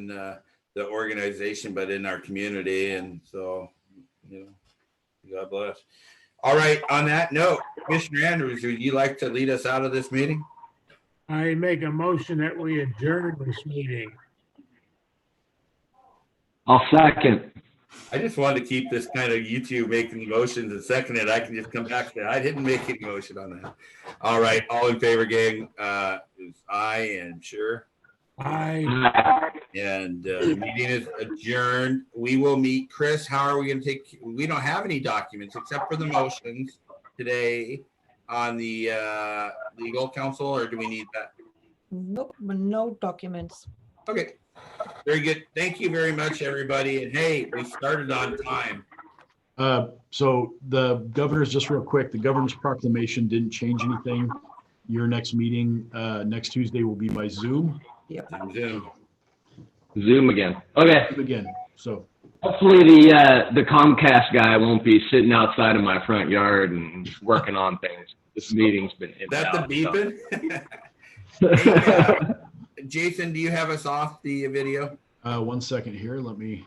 in uh, the organization, but in our community. And so, you know, God bless. All right. On that note, Commissioner Andrews, would you like to lead us out of this meeting? I make a motion that we adjourn this meeting. I'll second. I just wanted to keep this kind of you two making motions and seconding it. I can just come back to that. I didn't make any motion on that. All right. All in favor, gang? Uh, is aye and sure. I, Aye. And uh, the meeting is adjourned. We will meet. Chris, how are we going to take, we don't have any documents except for the motions today on the uh, legal counsel, or do we need that? Nope, no documents. Okay, very good. Thank you very much, everybody. And hey, we started on time. Uh, So the governor's, just real quick, the governor's proclamation didn't change anything. Your next meeting, uh, next Tuesday will be by Zoom on Zoom. Zoom again. Okay. again. So, Hopefully the uh, the Comcast guy won't be sitting outside of my front yard and working on things. This meeting's been. Is that the beeping? uh, Jason, do you have us off the video? uh, one second here, let me,